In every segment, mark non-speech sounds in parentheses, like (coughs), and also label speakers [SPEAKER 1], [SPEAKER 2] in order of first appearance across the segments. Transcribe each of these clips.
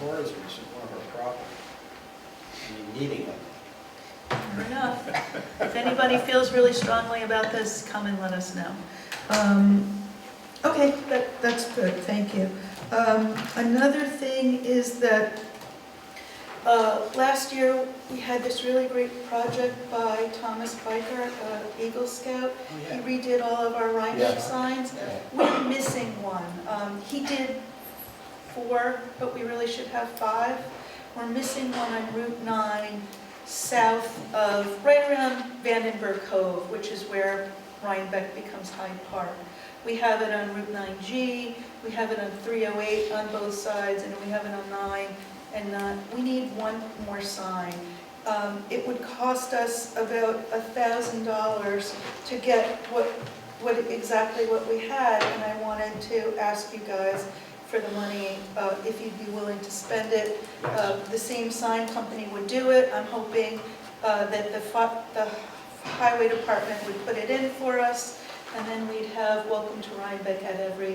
[SPEAKER 1] Tourism is one of our problems. I mean, needing it.
[SPEAKER 2] Fair enough. If anybody feels really strongly about this, come and let us know.
[SPEAKER 3] Um, Okay, that, that's good, thank you. Um, Another thing is that uh, last year, we had this really great project by Thomas Biker, uh, Eagle Scout.
[SPEAKER 1] Oh,
[SPEAKER 3] He
[SPEAKER 1] yeah.
[SPEAKER 3] redid all of our Rhinebeck
[SPEAKER 1] Yeah.
[SPEAKER 3] signs.
[SPEAKER 1] Yeah.
[SPEAKER 3] We're missing one. Um, He did four, but we really should have five. We're missing one on Route 9, south of, right around Vandenberg Cove, which is where Rhinebeck becomes Hyde Park. We have it on Route 9G, we have it on 308 on both sides, and we have it on 9 and 9. We need one more sign. Um, It would cost us about $1,000 to get what, what, exactly what we had, and I wanted to ask you guys for the money, uh, if you'd be willing to spend it. Uh, The same sign company would do it. I'm hoping uh, that the fi- the highway department would put it in for us, and then we'd have welcome to Rhinebeck at every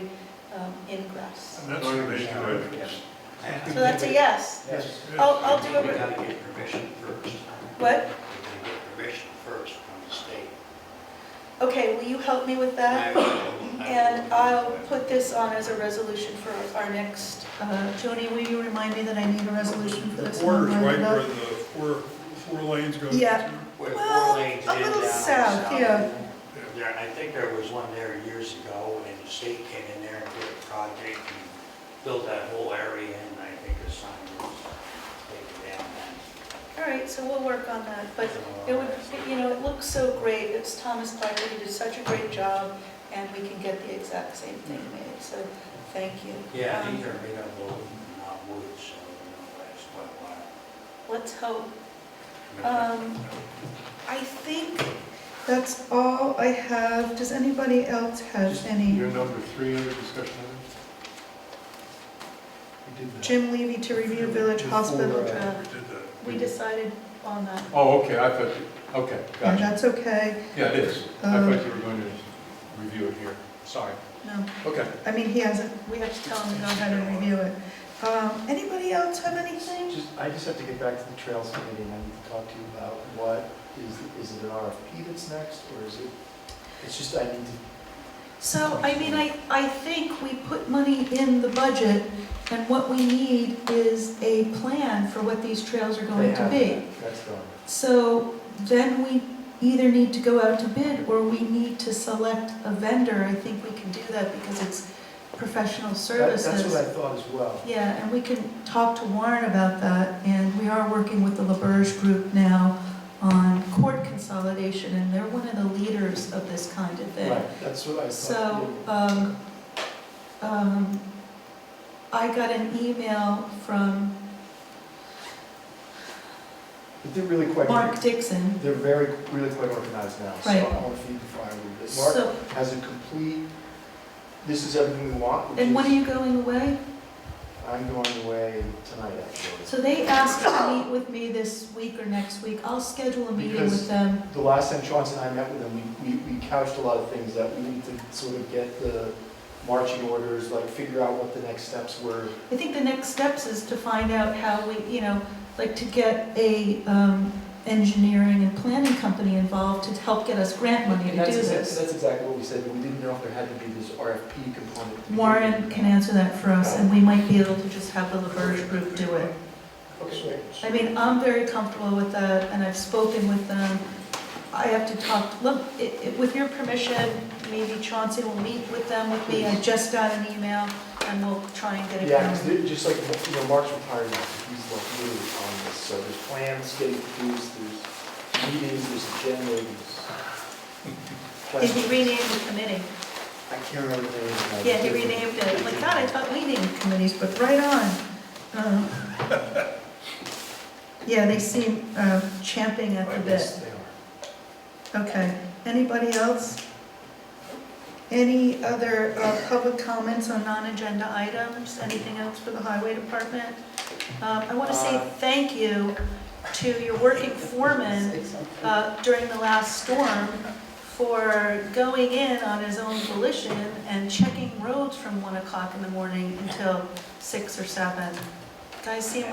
[SPEAKER 3] um, ingress.
[SPEAKER 4] That's what they do.
[SPEAKER 3] So that's a yes.
[SPEAKER 1] Yes.
[SPEAKER 3] I'll, I'll do
[SPEAKER 5] We
[SPEAKER 3] it,
[SPEAKER 5] gotta get permission first.
[SPEAKER 3] what?
[SPEAKER 5] We gotta get permission first from the state.
[SPEAKER 3] Okay, will you help me with
[SPEAKER 5] I
[SPEAKER 3] that?
[SPEAKER 5] will- I
[SPEAKER 3] Uh, And
[SPEAKER 5] will-
[SPEAKER 3] I'll put this on as a resolution for our next,
[SPEAKER 2] Uh, Joni, will you remind me that I need a resolution for
[SPEAKER 4] The
[SPEAKER 2] this?
[SPEAKER 4] border's
[SPEAKER 2] one,
[SPEAKER 4] right
[SPEAKER 2] Rhinebeck?
[SPEAKER 4] where the four, four lanes go.
[SPEAKER 3] Yeah.
[SPEAKER 5] Where
[SPEAKER 3] well,
[SPEAKER 5] four lanes
[SPEAKER 3] a
[SPEAKER 5] in
[SPEAKER 3] little
[SPEAKER 5] down
[SPEAKER 3] south,
[SPEAKER 5] south.
[SPEAKER 3] yeah.
[SPEAKER 5] There, I think there was one there years ago, and the state came in there and did a project and built that whole area, and I think the sign was taken down then.
[SPEAKER 3] all right, so we'll work on that, but It would, you know, it looks so great, it's Thomas Piper, he did such a great job, and we can get the exact same thing made, so thank you.
[SPEAKER 5] Yeah,
[SPEAKER 3] Um,
[SPEAKER 5] these are made of wood, not wood, so it'll last quite a while.
[SPEAKER 3] Let's hope. Um, I think that's all I have. Does anybody else have any?
[SPEAKER 4] Your number three under discussion items?
[SPEAKER 1] We did that.
[SPEAKER 3] Jim Levy to review Village Hospital
[SPEAKER 1] Before, uh,
[SPEAKER 3] draft.
[SPEAKER 4] We did that.
[SPEAKER 3] We decided on that,
[SPEAKER 4] Oh, okay, I thought, you- okay,
[SPEAKER 3] and Um,
[SPEAKER 4] gotcha.
[SPEAKER 3] that's okay.
[SPEAKER 4] Yeah, it is. I thought you were going to review it here. Sorry.
[SPEAKER 3] No,
[SPEAKER 4] Okay.
[SPEAKER 3] I mean, he hasn't, we have to tell him to know how to review it. Um, Anybody else have anything?
[SPEAKER 6] Just, I just have to get back to the Trails Committee, and I need to talk to you about what, is, is it an RFP that's next, or is it, it's just, I need to,
[SPEAKER 3] So, I mean, I, I think we put money in the budget, and what we need is a plan for what these trails are
[SPEAKER 6] they
[SPEAKER 3] going to
[SPEAKER 6] have
[SPEAKER 3] be.
[SPEAKER 6] that, that's gone.
[SPEAKER 3] So then we either need to go out to bid, or we need to select a vendor. I think we can do that because it's professional
[SPEAKER 6] That- That's what
[SPEAKER 3] services.
[SPEAKER 6] I thought as well.
[SPEAKER 3] Yeah, and we can talk to Warren about that, and we are working with the LaBerge Group now on court consolidation, and they're one of the leaders of this kind of thing.
[SPEAKER 6] Right, that's what I thought.
[SPEAKER 3] So, um, um, I got an email from
[SPEAKER 6] But they're really quite,
[SPEAKER 3] Mark Dixon.
[SPEAKER 6] they're very, really quite organized now, so
[SPEAKER 3] Right.
[SPEAKER 6] I want to feed the fire a little bit. Mark
[SPEAKER 3] So,
[SPEAKER 6] has a complete, this is everything we want, which
[SPEAKER 3] and when are
[SPEAKER 6] is-
[SPEAKER 3] you going away?
[SPEAKER 6] I'm going away tonight, actually.
[SPEAKER 3] So they asked
[SPEAKER 6] (coughs)
[SPEAKER 3] to meet with me this week or next week. I'll schedule a meeting with
[SPEAKER 6] Because-
[SPEAKER 3] them.
[SPEAKER 6] The last time Chauncey and I met with them, we, we we couched a lot of things that we need to sort of get the marching orders, like figure out what the next steps were.
[SPEAKER 3] I think the next steps is to find out how we, you know, like to get a, um, engineering and planning company involved to help get us grant money to
[SPEAKER 6] And
[SPEAKER 3] do
[SPEAKER 6] that's exac-
[SPEAKER 3] this.
[SPEAKER 6] That's exactly what we said, but we didn't know if there had to be this RFP component. to begin
[SPEAKER 3] Warren
[SPEAKER 6] with.
[SPEAKER 3] can answer that for us, and we might be able to just have the LaBerge Group do it.
[SPEAKER 6] Okay, great.
[SPEAKER 3] I mean, I'm very comfortable with that, and I've spoken with them. I have to talk, look, i- i- with your permission, maybe Chauncey will meet with them with me. I just got an email, and we'll try and get it
[SPEAKER 6] Yeah, 'cause
[SPEAKER 3] done.
[SPEAKER 6] they're just like, you know, Mark's retired now, so he's like really on this, so there's plans getting produced, there's meetings, there's agenda, there's.
[SPEAKER 3] Did he rename the committee?
[SPEAKER 6] I can't remember the name. of it.
[SPEAKER 3] Yeah, he renamed it. Like, God, I thought we named committees, but right on. Um, Yeah, they seem um, champing at the bit.
[SPEAKER 6] Yes, they are.
[SPEAKER 3] Okay, anybody else? Any other uh, public comments on non-agenda items? Anything else for the highway department? Um, I want to say
[SPEAKER 6] Uh.
[SPEAKER 3] thank you to your working foreman uh, during the last storm for going in on his own volition and checking roads from 1 o'clock in the morning until 6 or 7. Guys seem